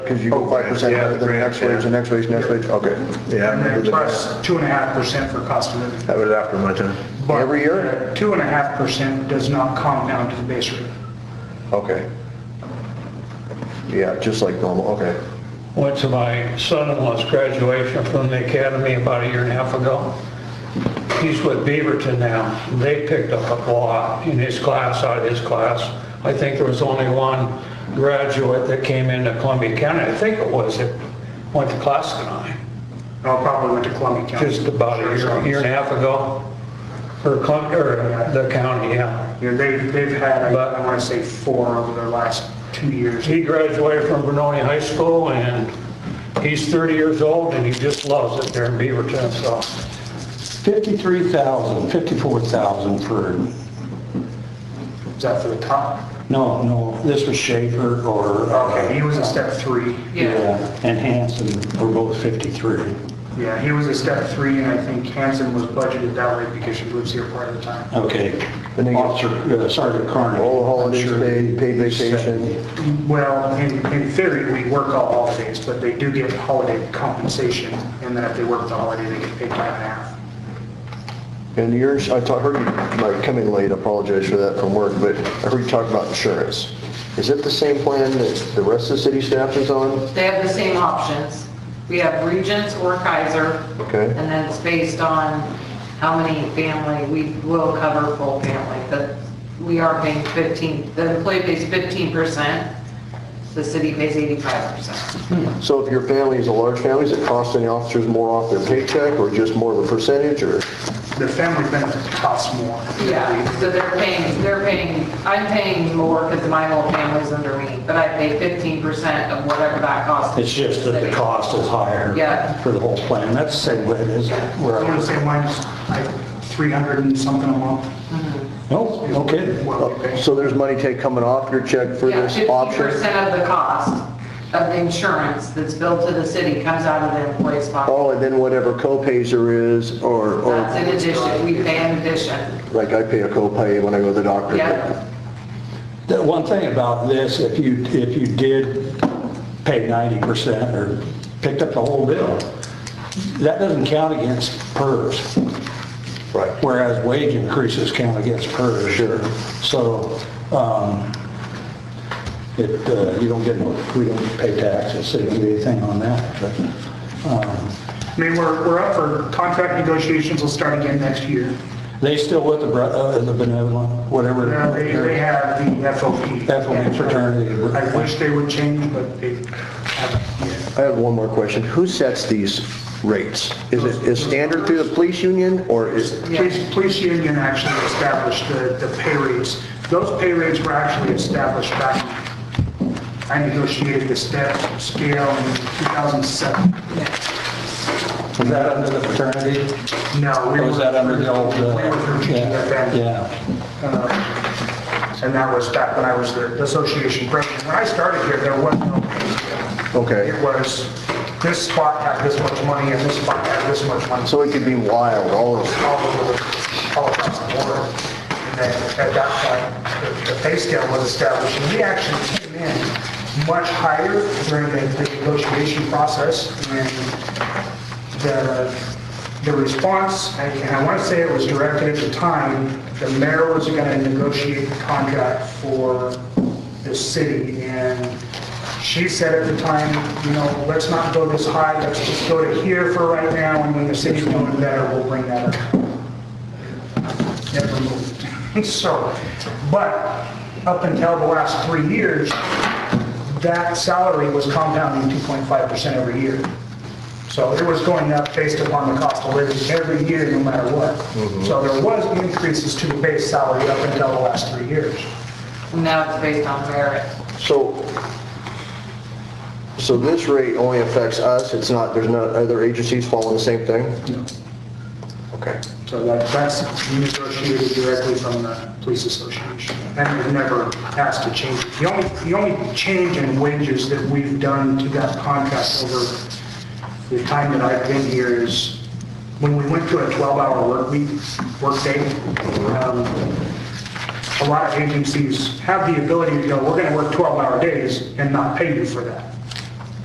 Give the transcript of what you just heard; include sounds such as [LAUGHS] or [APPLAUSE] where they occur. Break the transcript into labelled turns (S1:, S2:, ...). S1: Because you go five percent
S2: Yeah,
S1: higher than the
S2: grand,
S1: next wage, the next wage, next wage, okay.
S2: Yeah, I
S3: And
S2: remember
S3: then
S2: that.
S3: plus two and a half percent for cost of living.
S2: That was after my time.
S3: But
S1: Every year?
S3: Two and a half percent does not compound to the base rate.
S1: Okay. Yeah, just like normal, okay.
S4: Went to my son-in-law's graduation from the academy about a year and a half ago. He's with Beaverton now. They picked up a lot in his class, out of his class. I think there was only one graduate that came into Columbia County, I think it was, that went to Clascanine
S3: I'll probably went to Columbia County.
S4: just about a year, year and a half ago. Or, Clum- or uh, the county, yeah.
S3: Yeah, they, they've had,
S4: But-
S3: I want to say four over their last two years.
S4: He graduated from Benoni High School and he's 30 years old and he just loves it there in Beaverton, so.
S5: 53,000, 54,000 for,
S3: Is that for the top?
S5: no, no, this was Schaefer or.
S3: Okay, he was a step three.
S5: Yeah, and Hanson were both 53.
S3: Yeah, he was a step three, and I think Hanson was budgeted that way because she lives here part of the time.
S5: Okay.
S1: And they get-
S5: Officer, uh, Sergeant Carney.
S1: All the holidays
S5: Sure.
S1: paid, paid vacation.
S3: Well, in, in theory, we work all holidays, but they do get holiday compensation, and then if they work the holiday, they get paid time and a half.
S1: And yours, I ta- heard you, like, coming late, I apologize for that from work, but I heard you talk about insurance. Is it the same plan that the rest of the city staff is on?
S6: They have the same options. We have Regents or Kaiser.
S1: Okay.
S6: And then it's based on how many family, we will cover full family, but we are paying 15, the employee pays 15%, the city pays 85%.
S1: So if your family is a large family, is it costing the officers more off their paycheck or just more of a percentage or?
S3: The family benefit costs more.
S6: Yeah, so they're paying, they're paying, I'm paying more because my whole family's under me, but I pay 15% of whatever that costs.
S5: It's just that the cost is higher.
S6: Yeah.
S5: For the whole plan. That's the same way it is. where
S3: I
S5: I
S3: want to
S5: was-
S3: say mine's like 300 and something a month.
S5: Nope, no kidding.
S3: Well, we pay.
S1: So there's money take coming off your check for
S6: Yeah,
S1: this option?
S6: 50% of the cost of the insurance that's billed to the city comes out of the employee's pocket.
S1: Oh, and then whatever co-pays there is or, or
S6: That's in addition, we pay in addition.
S1: like I pay a co-pay when I go to the doctor.
S6: Yeah,
S5: The one thing about this, if you, if you did pay 90% or picked up the whole bill, that doesn't count against PERS.
S1: Right.
S5: whereas wage increases count against PERS. Sure. So, um, it, uh, you don't get, no- we don't pay taxes, so you don't get anything on that, but, um,
S3: I mean, we're, we're up for contract negotiations, will start again next year.
S5: they still with the, bre- uh, the benevolent, whatever.
S3: Now, Uh, They, they have the FOP.
S5: FOP fraternity.
S3: I wish they would change, but they haven't yet.
S1: I have one more question. Who sets these rates? Is it, is standard through the police union or is,
S6: Yeah.
S3: Police, police union actually established the, the pay rates. Those pay rates were actually established back, I negotiated the step scale in 2007.
S5: Was that under the fraternity?
S3: No, we
S5: Or was
S3: were,
S5: that under the old?
S3: we
S5: uh,
S3: were through
S5: yeah,
S3: GTFN,
S5: Yeah,
S3: um, and that was back when I was the the association president. When I started here, there was no pay scale. It
S1: okay.
S3: was, this spot had this much money, and this spot had this much money.
S1: So it could be wild, all of
S3: all over, the- all across the board. And then at that point, the- the pay scale was established, and we actually came in much higher during the the negotiation process. And the, the response, and and I want to say it was directed at the time, the mayor was going to negotiate the contract for the city, and she said at the time, you know, let's not go this high, let's just go to here for right now, and when the city's doing better, we'll bring that up never moved. [LAUGHS] So, but up until the last three years, that salary was compounding 2.5% every year. So it was going up based upon the cost of living every year, no matter what. So there was increases to the base salary up until the last three years.
S6: now it's based on merit.
S1: So, so this rate only affects us, it's not, there's no other agencies following the same thing? Okay.
S3: So that- that's negotiated directly from the police association. And we've never asked to change. it. The only, the only change in wages that we've done to that contract over the time that I've been here is when we went to a 12-hour work week, work day, um, a lot of agencies have the ability to go, we're going to work 12-hour days and not pay you for that.